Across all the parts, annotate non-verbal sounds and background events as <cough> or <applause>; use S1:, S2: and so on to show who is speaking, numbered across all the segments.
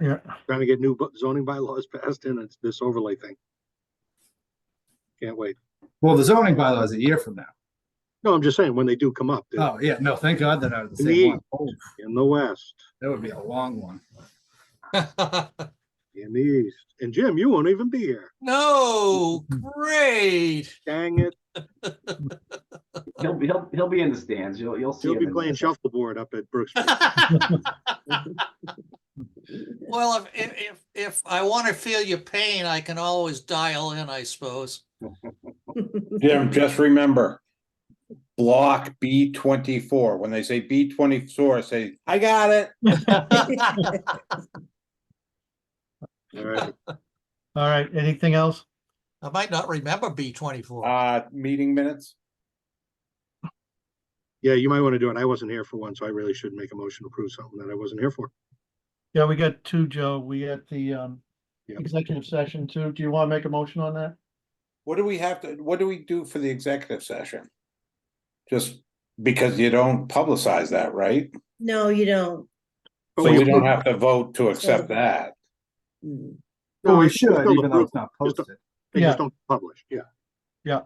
S1: Yeah.
S2: trying to get new bu- zoning bylaws passed in, it's this overlay thing. Can't wait.
S3: Well, the zoning bylaw is a year from now.
S2: No, I'm just saying, when they do come up, they're
S3: Oh, yeah, no, thank God that I was the
S2: Me.
S3: same one. Oh,
S2: in the west,
S3: That would be a long one.
S2: in the east, and Jim, you won't even be here.
S4: No,
S2: <laughs>
S4: great.
S2: Dang it,
S5: He'll be, he'll, he'll be in the stands. You'll, you'll see.
S2: you'll
S5: him
S2: be
S5: in-
S2: playing shuffleboard up at Brooks.
S4: Well, if, if, if, if I want to feel your pain, I can always dial in, I suppose.
S6: Jim, just remember, block B twenty-four. When they say B twenty-four, say, I got it.
S2: All right,
S1: All right, anything else?
S4: I might not remember B twenty-four.
S6: Uh, meeting minutes.
S2: yeah, you might want to do it. I wasn't here for one, so I really should make a motion to approve something that I wasn't here for.
S1: Yeah, we got two, Joe. We got the um
S2: Yeah.
S1: executive session too. Do you want to make a motion on that?
S6: What do we have to, what do we do for the executive session? Just because you don't publicize that, right?
S7: No, you don't.
S2: But
S6: So
S2: we-
S6: we don't have to vote to accept that.
S7: Mm.
S2: No,
S3: Well, we
S2: it's
S3: should,
S2: still
S3: even though
S2: approved.
S3: it's not
S2: Just a-
S3: posted.
S2: They
S1: Yeah.
S2: just don't publish, yeah.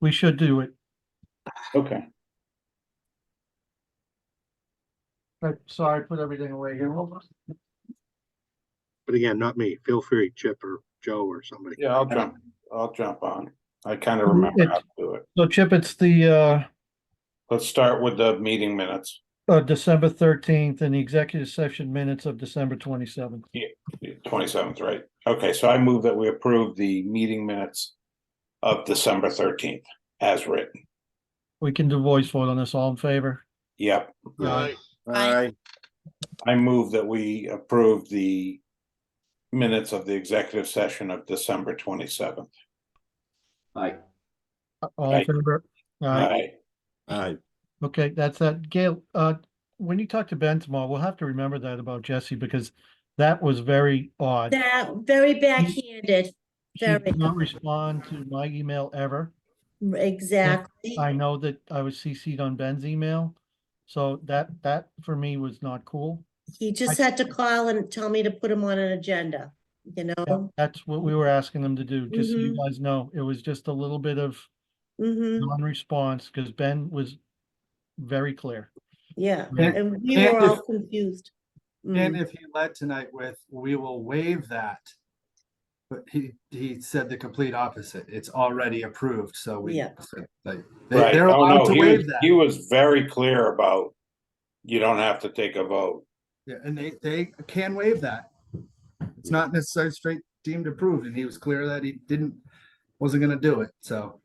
S1: We should do it.
S6: Okay.
S1: I'm Uh, sorry, put everything away here. Hold on.
S2: But again, not me. Feel free, Chip or Joe or somebody.
S6: Yeah, I'll jump, I'll jump on. I kind of remember how to do it.
S1: So Chip, it's the uh
S6: Let's start with the meeting minutes.
S1: uh December thirteenth and the executive session minutes of December twenty-seventh.
S6: Twenty-seventh, right? Okay, so I move that we approve the meeting minutes of December thirteenth as written.
S1: We can do voice vote on this. All in favor?
S6: Yep,
S1: Aye.
S2: Uh,
S7: Aye.
S6: I move that we approve the minutes of the executive session of December twenty-seventh.
S5: Aye.
S1: All in
S6: Aye.
S1: favor? All right,
S6: Aye.
S1: okay, that's that. Gail, uh, when you talk to Ben tomorrow, we'll have to remember that about Jesse because that was very odd.
S7: That, very backhanded,
S1: She
S7: very,
S1: did not respond to my email ever.
S7: exactly.
S1: I know that I was CC'd on Ben's email, so that, that for me was not cool.
S7: He just had to call and tell me to put him on an agenda, you know?
S1: That's what we were asking them to do, just so you
S7: Mhm.
S1: guys know. It was just a little bit of
S7: hmm
S1: non-response, because Ben was very clear.
S7: yeah,
S1: Yeah.
S7: and we
S3: And
S7: were all
S3: if-
S7: confused.
S3: And
S7: Mm.
S3: if he led tonight with, we will waive that. But he, he said the complete opposite. It's already approved, so we.
S7: Yeah.
S3: so, like, they-
S6: Right.
S3: They're
S6: Oh,
S3: allowed
S6: no,
S3: to
S6: he
S3: waive
S6: was-
S3: that.
S6: He was very clear about, you don't have to take a vote.
S3: Yeah, and they, they can waive that. It's not necessarily straight deemed approved, and he was clear that he didn't, wasn't gonna do it, so.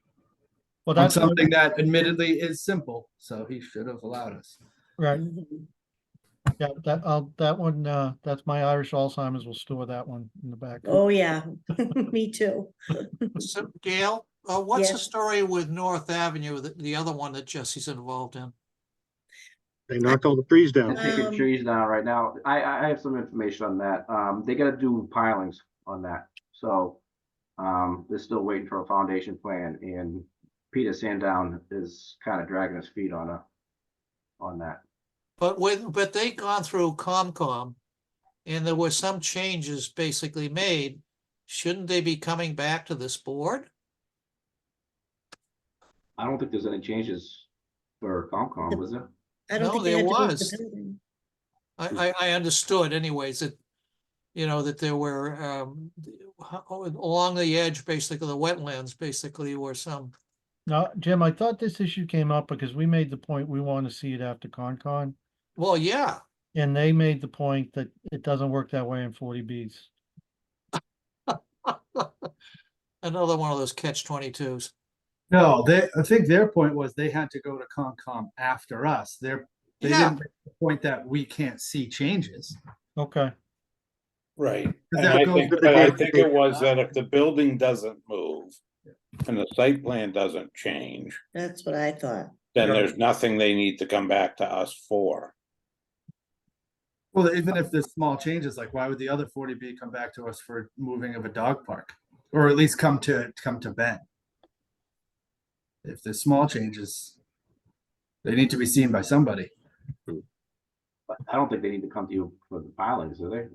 S1: Well,
S3: On
S1: that's, what-
S3: something that admittedly is simple, so he should have allowed us.
S1: right,
S7: Mhm.
S1: yeah, that, I'll, that one, uh, that's my Irish Alzheimer's, will store that one in the back.
S7: Oh, yeah, <laughs> me too.
S4: So Gail, uh, what's the
S7: Yes.
S4: story with North Avenue, the, the other one that Jesse's involved in?
S2: They knocked all the trees
S5: They're
S2: down.
S5: taking
S7: Um,
S5: trees down right now. I, I I have some information on that. Um, they gotta do pilings on that. So um, they're still waiting for a foundation plan and Peter Sandown is kind of dragging his feet on a, on that.
S4: But with, but they gone through COMCOM and there were some changes basically made. Shouldn't they be coming back to this board?
S5: I don't think there's any changes for Comcom, was there?
S7: I don't
S4: No,
S7: think they
S4: there
S7: had to leave
S4: was.
S7: the building.
S4: I, I, I understood anyways that, you know, that there were, um, ho- along the edge, basically, the wetlands, basically, were some,
S1: Now, Jim, I thought this issue came up because we made the point, we want to see it after Concon.
S4: well, yeah.
S1: And they made the point that it doesn't work that way in forty Bs.
S4: Another one of those catch twenty-twos.
S3: No, they, I think their point was they had to go to Concom after us. They're, they
S4: Yeah.
S3: didn't make the point that we can't see changes.
S1: Okay,
S6: Right. And
S3: that
S6: I
S3: goes
S6: think,
S2: with the
S6: but I
S2: building
S6: think
S2: they-
S6: it was that if the building doesn't move and the site plan doesn't change,
S7: That's what I thought.
S6: then
S3: Yeah.
S6: there's nothing they need to come back to us for.
S3: Well, even if there's small changes, like why would the other forty B come back to us for moving of a dog park? Or at least come to, come to Ben? If there's small changes, they need to be seen by somebody.
S5: But I don't think they need to come to you for the pilings, do they?